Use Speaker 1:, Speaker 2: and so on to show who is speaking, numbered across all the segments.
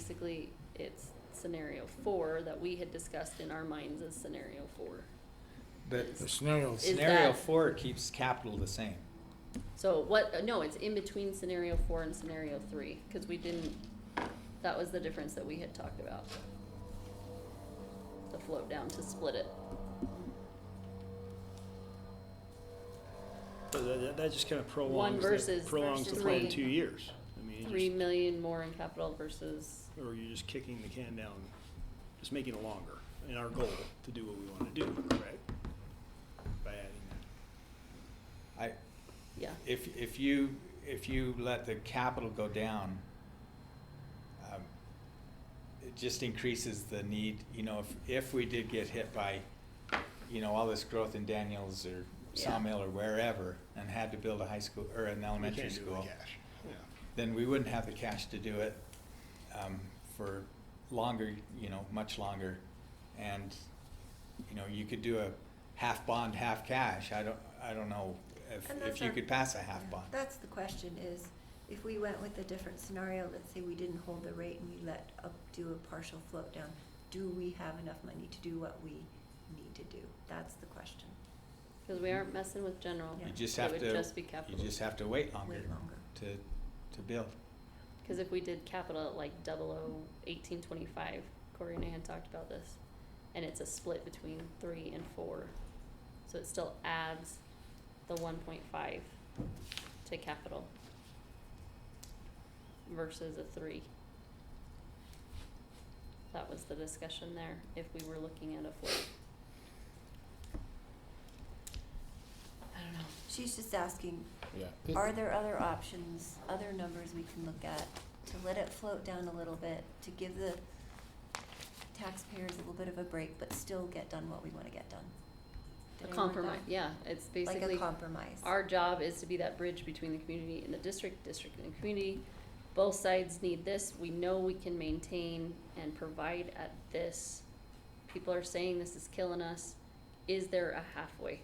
Speaker 1: Basically, it's scenario four that we had discussed in our minds as scenario four.
Speaker 2: But
Speaker 1: Is-
Speaker 3: The scenario
Speaker 1: Is
Speaker 2: scenario
Speaker 1: that-
Speaker 2: four keeps capital the same.
Speaker 1: So what, no, it's in between scenario four and scenario three, cause we didn't, that was the difference that we had talked about. The float down to split it.
Speaker 4: But that, that- that just kind of prolongs. the-
Speaker 1: versus-
Speaker 4: Prolongs the
Speaker 1: versus
Speaker 4: plan
Speaker 1: three.
Speaker 4: two years. I mean,
Speaker 1: Three
Speaker 4: you
Speaker 1: million more in capital versus,
Speaker 4: just, or you're just kicking the can down, just making it longer in our goal to do what we want to do, correct? By adding that.
Speaker 2: I,
Speaker 1: yeah,
Speaker 2: if, if you, if you let the capital go down, um, it just increases the need, you know, if, if we did get hit by, you know, all this growth in Daniels or
Speaker 1: Yeah.
Speaker 2: Sawmill or wherever, and had to build a high school, or an
Speaker 4: We
Speaker 2: elementary
Speaker 4: can't do it with
Speaker 2: school,
Speaker 4: cash. Yeah.
Speaker 2: then we wouldn't have the cash to do it, um, for longer, you know, much longer. And, you know, you could do a half bond, half cash, I don't, I don't know if,
Speaker 5: And
Speaker 2: if
Speaker 5: that's
Speaker 2: you
Speaker 5: our-
Speaker 2: could pass a half bond.
Speaker 5: That's the question is, if we went with a different scenario, let's say we didn't hold the rate and we let up, do a partial float down, do we have enough money to do what we need to do? That's the question.
Speaker 1: cause we aren't messing with general.
Speaker 5: Yeah.
Speaker 2: You just
Speaker 1: It
Speaker 2: have
Speaker 1: would
Speaker 2: to,
Speaker 1: just be
Speaker 2: you
Speaker 1: capital.
Speaker 2: just have to wait longer
Speaker 5: Wait longer.
Speaker 2: to, to build.
Speaker 1: Cause if we did capital at like double oh eighteen twenty-five, Corey and I had talked about this, and it's a split between three and four. So it still adds the one point five to capital versus a three. That was the discussion there, if we were looking at a float. I don't know.
Speaker 5: She's just asking,
Speaker 3: Yeah.
Speaker 5: are there other options, other numbers we can look at to let it float down a little bit, to give the taxpayers a little bit of a break, but still get done what we wanna get done?
Speaker 1: A
Speaker 5: Did I word that?
Speaker 1: compromise, yeah, it's basically.
Speaker 5: Like a compromise.
Speaker 1: Our job is to be that bridge between the community and the district, district and the community. Both sides need this. We know we can maintain and provide at this. People are saying this is killing us. Is there a halfway?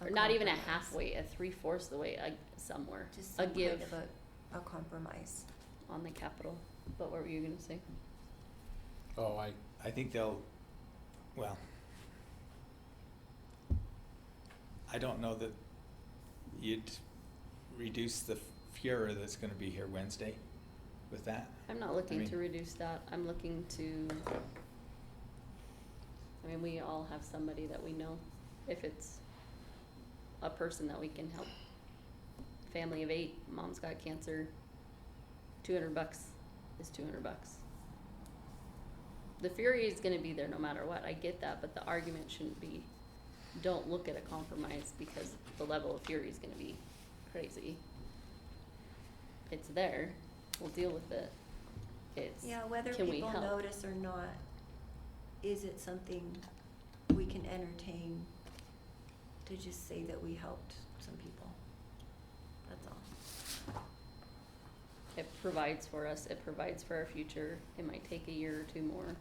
Speaker 5: A
Speaker 1: Or not even a
Speaker 5: compromise.
Speaker 1: halfway, a three fourths of the way, a, somewhere,
Speaker 5: Just
Speaker 1: a
Speaker 5: some
Speaker 1: give
Speaker 5: kind of a, a compromise.
Speaker 1: on the capital. But what were you gonna say?
Speaker 3: Oh, I,
Speaker 2: I think they'll, well, I don't know that you'd reduce the furor that's gonna be here Wednesday with that.
Speaker 1: I'm not looking
Speaker 2: mean-
Speaker 1: to reduce that. I'm looking to. I mean, we all have somebody that we know, if it's a person that we can help. Family of eight, mom's got cancer, two hundred bucks is two hundred bucks. The fury is gonna be there no matter what, I get that, but the argument shouldn't be, don't look at a compromise because the level of fury is gonna be crazy. It's there, we'll deal with it. It's,
Speaker 5: Yeah, whether
Speaker 1: can we
Speaker 5: people
Speaker 1: help?
Speaker 5: notice or not, is it something we can entertain to just say that we helped some people? That's all.
Speaker 1: It provides for us, it provides for our future, it might take a year or two more.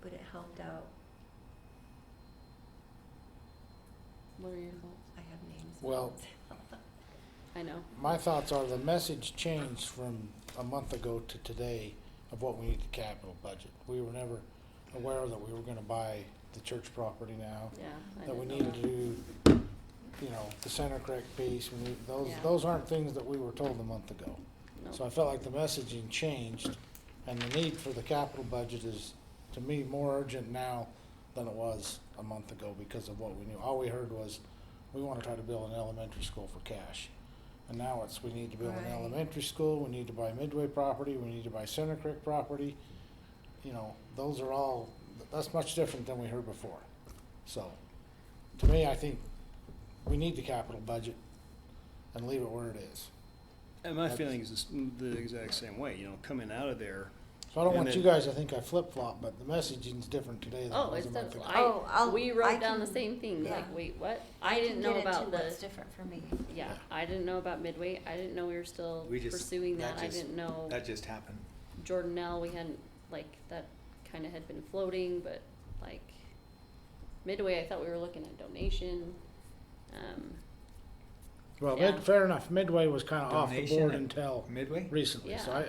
Speaker 5: But it helped out,
Speaker 1: What are your thoughts?
Speaker 5: I have names.
Speaker 3: Well-
Speaker 1: I know,
Speaker 3: my thoughts are the message changed from a month ago to today of what we need the capital budget. We were never aware that we were gonna buy the church property now,
Speaker 1: yeah. I
Speaker 3: that we
Speaker 1: didn't know
Speaker 3: needed to do, you know, the Center Creek piece, we need, those,
Speaker 1: Yeah.
Speaker 3: those aren't things that we were told a month ago.
Speaker 1: No.
Speaker 3: So I felt like the messaging changed, and the need for the capital budget is, to me, more urgent now than it was a month ago because of what we knew. All we heard was, we wanna try to build an elementary school for cash. And now it's, we need to build an
Speaker 5: Right.
Speaker 3: elementary school, we need to buy Midway property, we need to buy Center Creek property. You know, those are all, that's much different than we heard before. So, to me, I think we need the capital budget and leave it where it is.
Speaker 4: And my
Speaker 3: That's-
Speaker 4: feeling is this- the exact same way, you know, coming out of there,
Speaker 3: So I don't
Speaker 4: And
Speaker 3: want you
Speaker 4: then-
Speaker 3: guys to think I flip flop, but the messaging's different today than it
Speaker 1: Oh, it's
Speaker 3: was a
Speaker 1: the,
Speaker 3: month ago.
Speaker 5: Oh,
Speaker 1: I,
Speaker 5: I'll-
Speaker 1: we wrote
Speaker 5: I
Speaker 1: down the
Speaker 5: can-
Speaker 1: same thing, like,
Speaker 5: yeah.
Speaker 1: wait, what? I didn't know about
Speaker 5: Get into what's
Speaker 1: the,
Speaker 5: different for me.
Speaker 1: yeah,
Speaker 3: Yeah.
Speaker 1: I didn't know about Midway, I didn't know we were still
Speaker 2: We just-
Speaker 1: pursuing
Speaker 2: that
Speaker 1: that, I
Speaker 2: just-
Speaker 1: didn't know
Speaker 2: That just happened.
Speaker 1: Jordanelle, we hadn't, like, that kinda had been floating, but like Midway, I thought we were looking at donation, um,
Speaker 3: Well,
Speaker 1: yeah.
Speaker 3: mid, fair enough. Midway was kind of off the
Speaker 2: Donation
Speaker 3: board
Speaker 2: and-
Speaker 3: until
Speaker 2: Oh, Midway?
Speaker 3: recently, so
Speaker 1: Yeah.
Speaker 3: I,